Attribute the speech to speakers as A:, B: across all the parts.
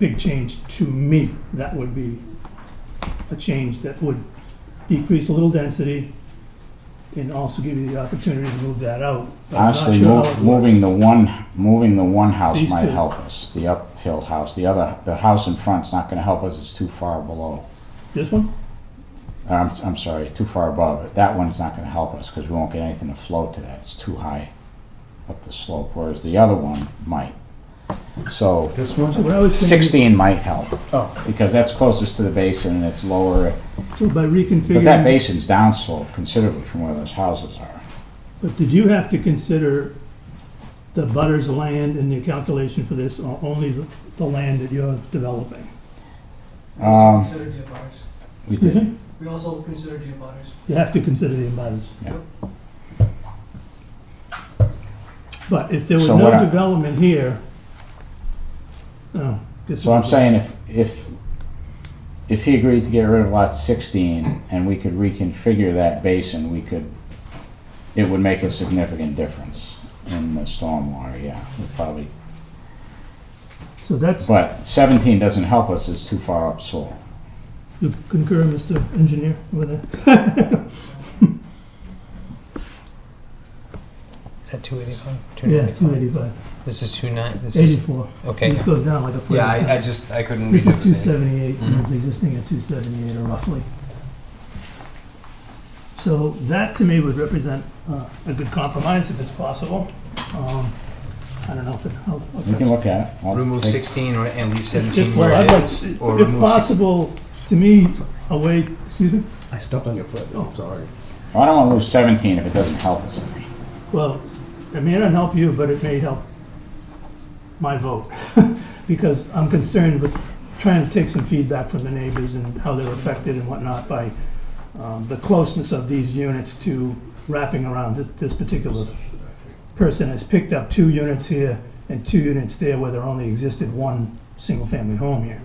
A: big change to me. That would be a change that would decrease a little density and also give you the opportunity to move that out. But I'm not
B: Honestly,
A: sure
B: mov-
A: how it works.
B: moving the one, moving the one house
A: These
B: might
A: two.
B: help us, the uphill house. The other, the house in front's not gonna help us, it's too far below.
A: This one?
B: Uh, I'm, I'm sorry, too far above it. That one's not gonna help us, because we won't get anything to float to that. It's too high up the slope, whereas the other one might. So
C: This one?
A: So what I was thinking,
B: sixteen might help,
C: Oh,
B: because that's closest to the basin and it's lower.
A: so by
B: But that
A: reconfiguring,
B: basin's downslope considerably from where those houses are.
A: but did you have to consider the butter's land in your calculation for this, or only the, the land that you're developing?
D: We also
B: Um,
D: considered the abutters.
B: We
A: Excuse
B: did,
A: me?
D: We also considered the abutters.
A: You have to consider the abutters.
B: Yeah.
A: But if there was
B: So what
A: no
B: I-
A: development here, oh. this
B: So I'm
A: is-
B: saying if, if, if he agreed to get rid of lot sixteen and we could reconfigure that basin, we could, it would make a significant difference in the stormwater, yeah, would probably.
A: So that's,
B: But seventeen doesn't help us, it's too far up soil.
A: you concur, Mr. Engineer, with that?
E: Is that 285?
A: Yeah,
E: 295?
A: two eighty-five,
E: This is 29. This is
A: eighty-four.
E: okay.
A: This goes down like a foot.
F: Yeah, I, I just, I couldn't read
A: This
F: what
A: is
F: it
A: two
F: was saying.
A: seventy-eight, and it's existing at two seventy-eight or roughly. So that to me would represent uh, a good compromise if it's possible. Um, I don't know if it, how.
B: We can look at it. I'll
F: Remove
B: take-
F: sixteen or, and leave
A: If-
F: seventeen
A: well,
F: where
A: I'd
F: it
A: like-
F: is, or
A: If
F: remove sixteen.
A: possible, to me, a way, excuse me,
C: I stepped on your foot, I'm sorry.
B: I don't wanna lose seventeen if it doesn't help us.
A: Well, it may not help you, but it may help my vote, because I'm concerned with trying to take some feedback from the neighbors and how they're affected and whatnot by um, the closeness of these units to wrapping around. This, this particular person has picked up two units here and two units there where there only existed one single-family home here.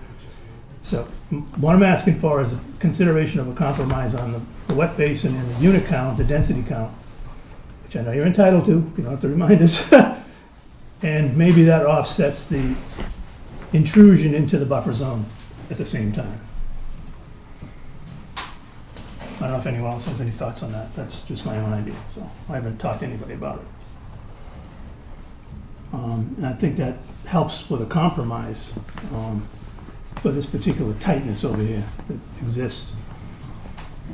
A: So m- what I'm asking for is a consideration of a compromise on the- the wet basin and the unit count, the density count, which I know you're entitled to, you don't have to remind us. And maybe that offsets the intrusion into the buffer zone at the same time. I don't know if anyone else has any thoughts on that, that's just my own idea, so I haven't talked to anybody about it. Um, And I think that helps with a compromise um, for this particular tightness over here that exists.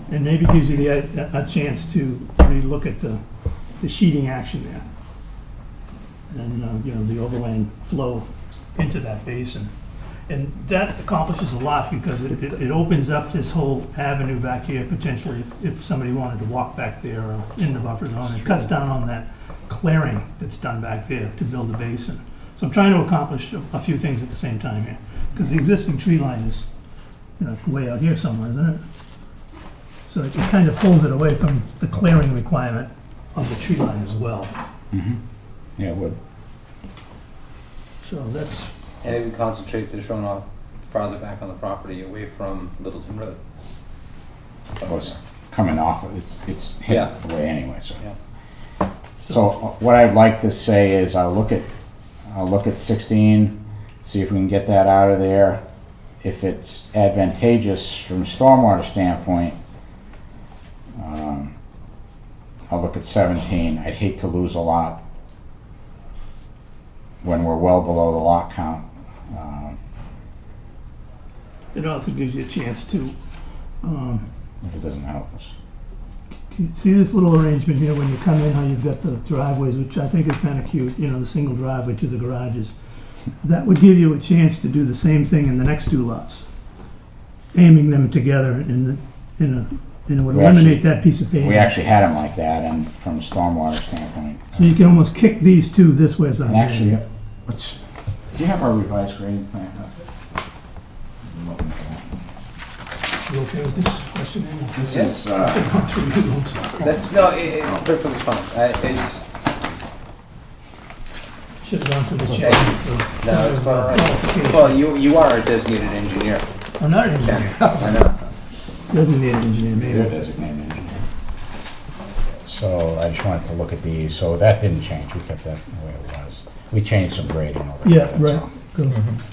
A: And maybe gives you the, a a chance to relook at the the sheeting action there. And, uh, you know, the overland flow into that basin. And that accomplishes a lot because it, it it opens up this whole avenue back here potentially if, if somebody wanted to walk back there or in the buffer zone. It cuts down on that clearing that's done back there to build the basin. So I'm trying to accomplish a- a few things at the same time here. Because the existing tree line is, you know, way out here somewhere, isn't it? So it kind of pulls it away from the clearing requirement of the tree line as well.
B: Yeah, it would.
A: So that's,
G: And it would concentrate the runoff farther back on the property away from Littleton Road.
B: Well, it's coming off, of- it's, it's
G: Yeah.
B: hit away anyway, so.
G: Yeah.
B: So uh, what I'd like to say is I'll look at, I'll look at sixteen, see if we can get that out of there. If it's advantageous from a stormwater standpoint, um, I'll look at seventeen. I'd hate to lose a lot when we're well below the lot count. Um,
A: it also gives you a chance to, um,
B: if it doesn't help us.
A: you see this little arrangement here when you come in, how you've got the driveways, which I think is kind of cute, you know, the single driveway to the garages. That would give you a chance to do the same thing in the next two lots, aiming them together in the, in a, and it would
B: We actually-
A: eliminate that piece of pavement.
B: We actually had them like that and from a stormwater standpoint.
A: So you can almost kick these two this way as I'm.
B: And actually, what's, do you have our revised grading plan up? I'm looking at that.
A: You okay with this question? Andy?
B: This
G: Yeah.
B: is, uh,
A: Not through you, I'm sorry.
G: That's, no, it, it's perfectly fine. I, it's,
A: Should have gone to the check.
G: no, it's fine. all right. Well, you, you are a designated engineer.
A: I'm Oh, not an engineer.
G: I know.
A: Doesn't need an engineer,
B: they're
A: maybe.
B: designated engineer. So I just wanted to look at these, so that didn't change, we kept that the way it was. We changed some grading over there,
A: Yeah,
B: that's
A: right.
B: all.
A: Go.